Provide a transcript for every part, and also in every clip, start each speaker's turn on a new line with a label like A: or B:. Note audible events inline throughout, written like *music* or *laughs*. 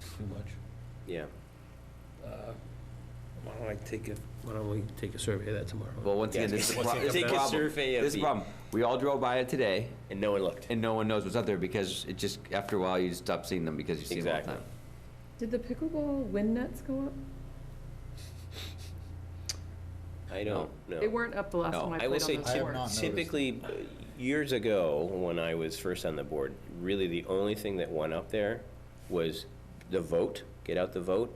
A: too much.
B: Yeah,
A: Uh, Why don't I take a, why don't we take a survey of that tomorrow?
C: Well, once
B: Yeah,
C: again, this is the pro-
B: take a
C: this is the problem.
B: survey of
C: This is the
B: the-
C: problem. We all drove by it today,
B: and no one looked.
C: and no one knows what's up there because it just, after a while, you stop seeing them because you see them all the
B: Exactly.
C: time.
D: Did the pickleball wind nets go up?
B: I don't know.
D: They weren't up the last
C: No.
D: time I
B: I will
D: played
B: say
D: on
B: typ-
D: those courts.
B: typically, uh, years ago, when I was first on the board, really the only thing that went up there was the vote, get out the vote,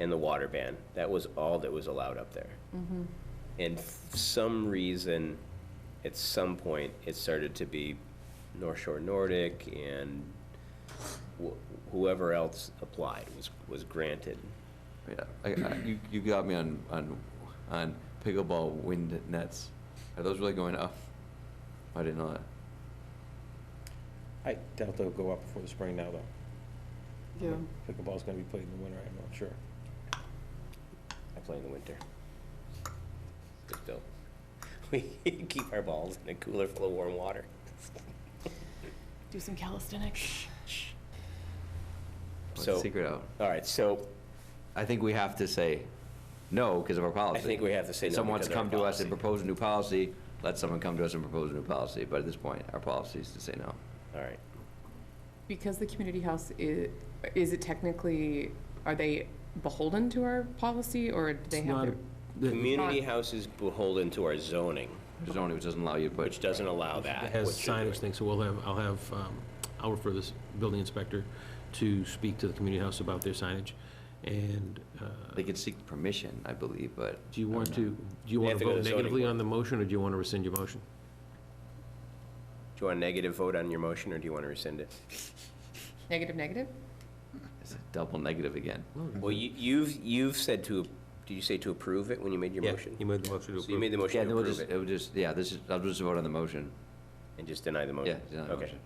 B: and the water ban. That was all that was allowed up there.
D: Mm-hmm.
B: And f- some reason, at some point, it started to be North Shore Nordic and wh- whoever else applied was, was granted.
C: Yeah, I- I- you, you got me on, on, on pickleball wind nets. Are those really going up? I didn't know that.
E: I doubt they'll go up before the spring now, though.
D: Yeah.
E: Pickleball's gonna be played in the winter, I'm not sure.
B: I play in the winter. But still, *laughs* we keep our balls in a cooler full of warm water.
D: Do some calisthenics.
C: Let's
B: So-
C: secret out.
B: All right, so
C: I think we have to say no because of our policy.
B: think we have to say
C: If
B: no
C: Someone wants to
B: because of
C: come
B: our
C: to us and
B: policy.
C: propose a new policy, let someone come to us and propose a new policy. But at this point, our policy is to say no.
B: All right.
D: Because the community house is, is it technically, are they beholden to our policy or do they
A: It's
D: have
A: not
D: their?
A: a- the-
B: Community
D: not-
B: house is beholden to our zoning,
C: There's only, which doesn't allow you to put.
B: which doesn't allow that.
A: It has
B: what you're
A: signage
B: doing.
A: thing, so we'll have, I'll have, um, I'll refer this building inspector to speak to the community house about their signage. And uh,
C: They could seek permission, I believe, but.
A: do you
C: I
A: want
C: don't
A: to,
C: know.
A: do you
B: They
A: want
B: have
A: to
B: to go to
A: vote
B: zoning
A: negatively
B: board.
A: on the motion, or do you want to rescind your motion?
B: Do you want a negative vote on your motion, or do you want to rescind it?
D: Negative, negative?
C: It's a double negative again.
A: Hmm.
B: Well, you, you've, you've said to, did you say to approve it when you made your
A: Yeah,
B: motion?
A: You made the motion to
B: So you
A: approve.
B: made the
C: Yeah,
B: motion
C: then
B: to
C: we'll
B: approve
C: just,
B: it,
C: it would just, yeah, this is, I'll just vote on the motion.
B: and just deny the
C: Yeah,
B: motion?
C: deny the
B: Okay.
C: motion.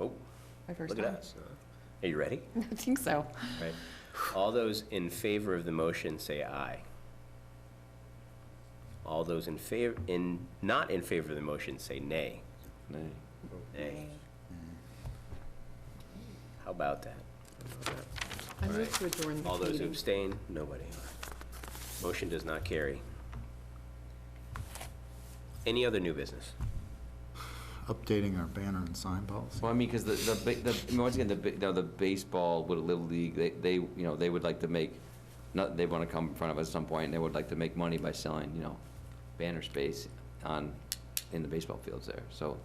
B: Oh,
D: My first
B: look at
D: time.
B: us. Are you ready?
D: *laughs* I think so.
B: Right. All those in favor of the motion, say aye. All those in favor, in, not in favor of the motion, say nay.
C: Nay.
B: Nay. How about that?
D: I move to adjourn
B: All
D: the
B: those who
D: meeting.
B: abstain, nobody. Motion does not carry. Any other new business?
F: updating our banner and sign policy.
C: Well, I mean, because the, the, ba- the, I mean, once again, the, ba- you know, the baseball, with Little League, they, they, you know, they would like to make, not, they want to come in front of us at some point, and they would like to make money by selling, you know, banner space on, in the baseball fields there, so,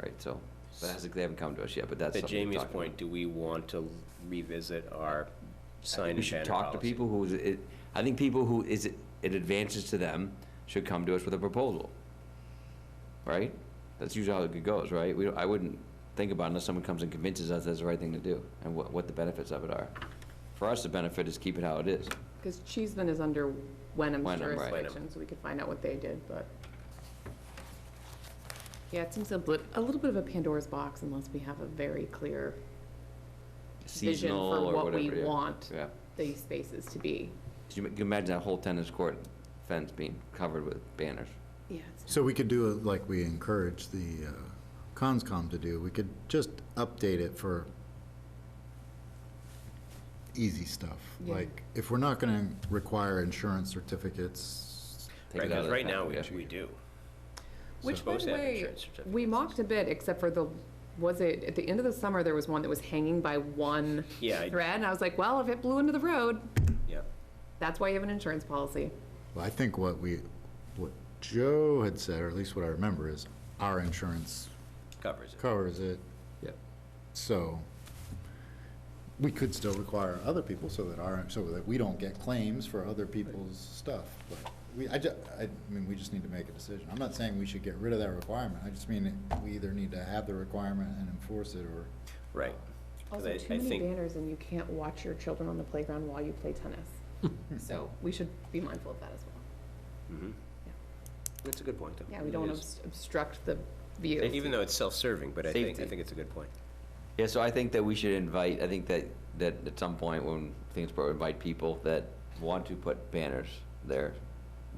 C: right, so, but that's, they haven't come to us yet, but that's
B: To
C: something to
B: Jamie's
C: talk about.
B: point, do we want to revisit our
C: I
B: sign
C: think
B: and
C: we should
B: banner
C: talk to
B: policy?
C: people who, is- it, I think people who is, it it advances to them should come to us with a proposal. Right? That's usually how it goes, right? We, don't- I wouldn't think about it unless someone comes and convinces us that's the right thing to do and what, what the benefits of it are. For us, the benefit is keep it how it is.
D: Because Cheeseman is under Wenham's
C: Wenham, right.
D: jurisdiction, so we could find out what they did, but. Yeah, it seems a bit, a little bit of a Pandora's box unless we have a very clear vision
C: Seasonal
D: for
C: or
D: what
C: whatever.
D: we
C: yeah.
D: want
C: Yeah.
D: these spaces to be.
C: 'Cause you ma- you imagine that whole tennis court fence being covered with banners.
D: Yeah.
F: So we could do it like we encourage the uh, CONSCOM to do. We could just update it for easy stuff.
D: Yeah.
F: Like, if we're not going to require insurance certificates,
C: Take
B: Right,
C: it
B: because
C: out of the
B: right
C: pack,
B: now, we,
C: yeah.
B: we do.
D: Which, by
B: Supposed
D: the
B: to have
D: way,
B: insurance certificates.
D: we mocked a bit, except for the, was it, at the end of the summer, there was one that was hanging by one
B: Yeah, I-
D: thread, and I was like, well, if it blew into the road,
B: Yeah.
D: that's why you have an insurance policy.
F: well, I think what we, what Joe had said, or at least what I remember, is our insurance
B: Covers it.
F: covers it,
A: Yeah.
F: so we could still require other people so that our, so that we don't get claims for other people's stuff. But we, I ju, I mean, we just need to make a decision. I'm not saying we should get rid of that requirement. I just mean we either need to have the requirement and enforce it or.
B: Right. 'Cause
D: Also,
B: I-
D: too
B: I
D: many
B: think-
D: banners, and you can't watch your children on the playground while you
B: *laughs*
D: play tennis. So we should be mindful of that as well.
B: Mhm.
D: Yeah.
B: That's a good point, though.
D: Yeah, we
B: It
D: don't
B: is.
D: obst- obstruct the view.
B: Even though it's self-serving, but I think, I
C: Safety.
B: think it's a good point.
C: Yeah, so I think that we should invite, I think that, that at some point when things, pro- invite people that want to put banners there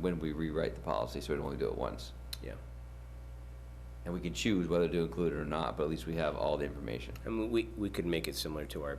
C: when we rewrite the policy, so we only do it once.
B: Yeah.
C: And we can choose whether to include it or not, but at least we have all the information.
B: I mean, we, we could make it similar to our